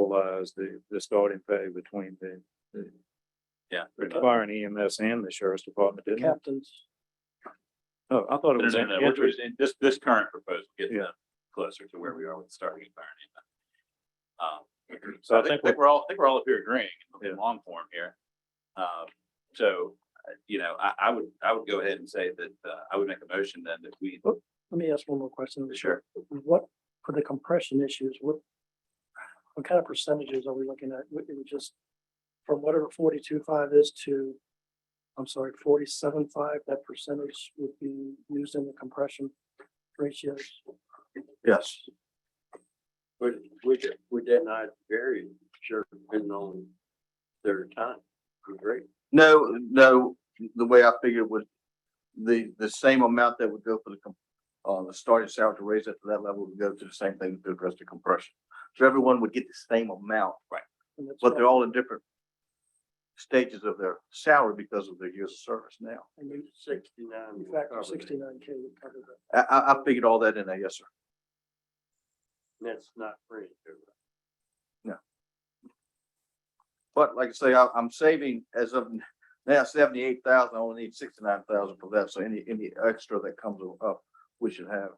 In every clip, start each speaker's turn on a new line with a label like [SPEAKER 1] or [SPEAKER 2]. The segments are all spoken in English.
[SPEAKER 1] equalize the, the starting pay between the the
[SPEAKER 2] Yeah. pretty much.
[SPEAKER 1] fire and EMS and the sheriff's department, didn't it?
[SPEAKER 3] captains.
[SPEAKER 1] Oh, I thought it
[SPEAKER 2] No,
[SPEAKER 1] was.
[SPEAKER 2] no, no, we're-
[SPEAKER 1] interest-
[SPEAKER 2] we're- This, this current proposal gets
[SPEAKER 1] Yeah.
[SPEAKER 2] them closer to where we are with starting and firing. Um,
[SPEAKER 1] So
[SPEAKER 2] so
[SPEAKER 1] I
[SPEAKER 2] I
[SPEAKER 1] think
[SPEAKER 2] think, I think we're all, I think we're all up here agreeing
[SPEAKER 1] Yeah.
[SPEAKER 2] in long form here. Um, so, uh, you know, I, I would, I would go ahead and say that, uh, I would make a motion then that we,
[SPEAKER 3] Let me ask one more question.
[SPEAKER 2] sure,
[SPEAKER 3] What, for the compression issues, what, what kind of percentages are we looking at? Would- It would just, from whatever forty-two five is to, I'm sorry, forty-seven five, that percentage would be used in the compression ratios.
[SPEAKER 4] Yes. Would, would, it- would that not vary, sure, depending on their time, great.
[SPEAKER 5] No, no, the way I figured was the, the same amount that would go for the, com- uh, the starting salary to raise it to that level would go to the same thing to address the compression. So everyone would get the same amount,
[SPEAKER 3] and that's
[SPEAKER 5] but they're
[SPEAKER 3] what-
[SPEAKER 5] all in different stages of their salary because of their years of service now.
[SPEAKER 3] And you
[SPEAKER 4] Sixty-nine.
[SPEAKER 3] you
[SPEAKER 4] will
[SPEAKER 3] factor
[SPEAKER 4] cover that.
[SPEAKER 3] sixty-nine K would cover that.
[SPEAKER 5] I, I, I figured all that in there, yes, sir.
[SPEAKER 4] And That's not free.
[SPEAKER 5] But like I say, I, I'm saving as of now seventy-eight thousand, I only need sixty-nine thousand for that, so any, any extra that comes up, we should have.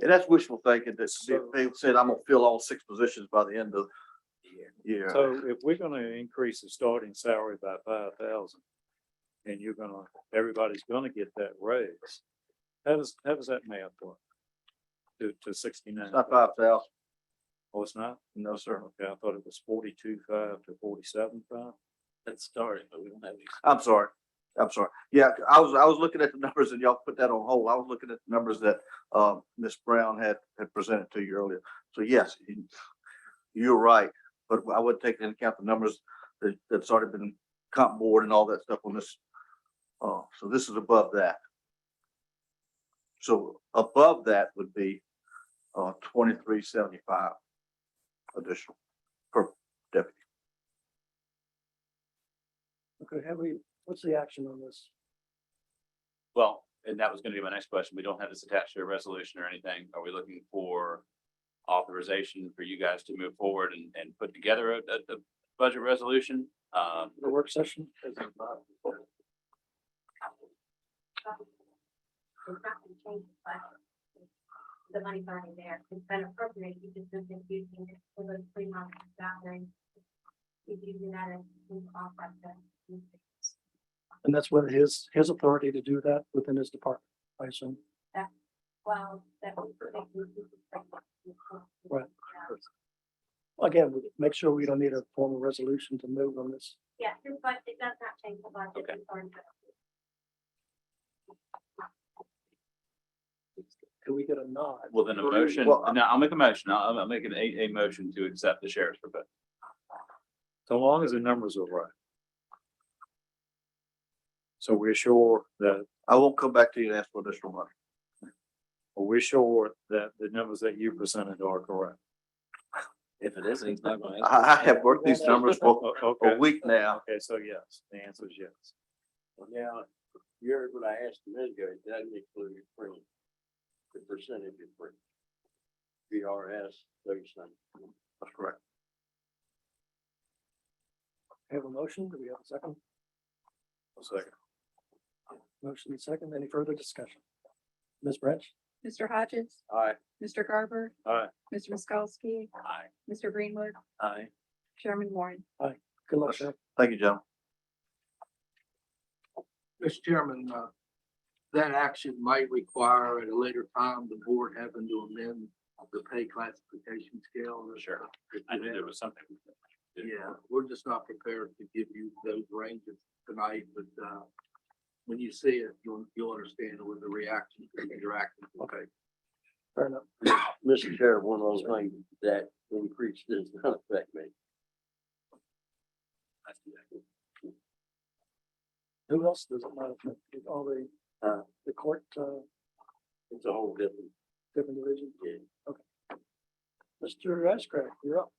[SPEAKER 5] And that's wishful thinking, that they- they said I'm gonna fill all six positions by the end of the year.
[SPEAKER 1] So if we're gonna increase the starting salary by five thousand, and you're gonna, everybody's gonna get that raise, how does, how does that math work? To, to sixty-nine?
[SPEAKER 5] It's not five thousand,
[SPEAKER 1] Oh, it's not?
[SPEAKER 5] no, sir.
[SPEAKER 1] Okay, I thought it was forty-two five to forty-seven five.
[SPEAKER 2] that's starting, but we don't have.
[SPEAKER 5] I'm sorry, I'm sorry. Yeah, I was, I was looking at the numbers and y'all put that on hold. I was looking at the numbers that, um, Ms. Brown had, had presented to you earlier. So yes, you- you're right, but I would take into account the numbers that, that's already been comp board and all that stuff on this. Uh, so this is above that. So above that would be, uh, twenty-three seventy-five additional.
[SPEAKER 3] Okay, have we, what's the action on this?
[SPEAKER 2] Well, and that was gonna be my next question. We don't have this attached to a resolution or anything. Are we looking for authorization for you guys to move forward and, and put together a, a, a budget resolution? Um,
[SPEAKER 3] The work session?
[SPEAKER 6] It's not gonna change the budget. The money's already there. It's been appropriated. You just been using it for those three months. That way, you do that as you off like that.
[SPEAKER 3] And that's with his, his authority to do that within his department, I assume.
[SPEAKER 6] Well, that would. that would be the-
[SPEAKER 3] Right. Again, we- make sure we don't need a formal resolution to move on this.
[SPEAKER 6] Yeah, your budget does not change the budget.
[SPEAKER 2] Okay.
[SPEAKER 6] It's already been approved.
[SPEAKER 3] Can we get a nod?
[SPEAKER 2] well, then a motion,
[SPEAKER 5] Well, I-
[SPEAKER 2] no, I'll make a motion. I'll, I'll make an a, a motion to accept the sheriff's proposal.
[SPEAKER 1] So long as the numbers are right. So we're sure that,
[SPEAKER 5] I won't come back to you and ask for additional money.
[SPEAKER 1] we're sure that the numbers that you presented are correct.
[SPEAKER 2] If it isn't, he's not going
[SPEAKER 5] I, I have worked these numbers for
[SPEAKER 1] O-
[SPEAKER 5] a
[SPEAKER 1] oh, Okay,
[SPEAKER 5] week now.
[SPEAKER 1] okay, so yes, the answer is yes.
[SPEAKER 4] Now, you heard what I asked a minute ago, it doesn't include free. The percentage is free. VRS, thirty-seven.
[SPEAKER 5] That's correct.
[SPEAKER 3] Have a motion? Do we have a second?
[SPEAKER 1] second.
[SPEAKER 3] Motion and second. Any further discussion? Ms. Branch?
[SPEAKER 7] Mr. Hodges.
[SPEAKER 4] Aye.
[SPEAKER 7] Mr. Garber.
[SPEAKER 1] Aye.
[SPEAKER 7] Mr. Miskowski.
[SPEAKER 2] Aye.
[SPEAKER 7] Mr. Greenwood.
[SPEAKER 2] uh,
[SPEAKER 4] Aye.
[SPEAKER 7] Chairman Warren.
[SPEAKER 3] Good luck, Sheriff.
[SPEAKER 5] Thank you, gentlemen.
[SPEAKER 8] Mr. Chairman, uh, that action might require at a later time the board having to amend the pay classification scale.
[SPEAKER 2] Sure. I knew there was something.
[SPEAKER 8] Yeah, we're just not prepared to give you those ranges tonight, but, uh, when you see it, you'll, you'll understand with the reaction, your action. Okay.
[SPEAKER 3] Fair enough.
[SPEAKER 4] Mr. uh, Chair, one of those things that increase does not affect me.
[SPEAKER 3] Who else does it matter? Did All the,
[SPEAKER 4] Uh.
[SPEAKER 3] the court, uh,
[SPEAKER 4] It's a whole different,
[SPEAKER 3] different division?
[SPEAKER 4] yeah.
[SPEAKER 3] Mr. Ashcraft, you're up.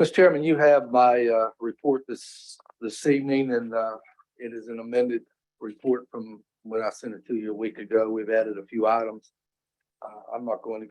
[SPEAKER 8] Mr. Chairman, you have my uh, report this, this evening, and uh, it is an amended report from when I sent it to you a week ago. We've added a few items.
[SPEAKER 5] Uh, I'm not going to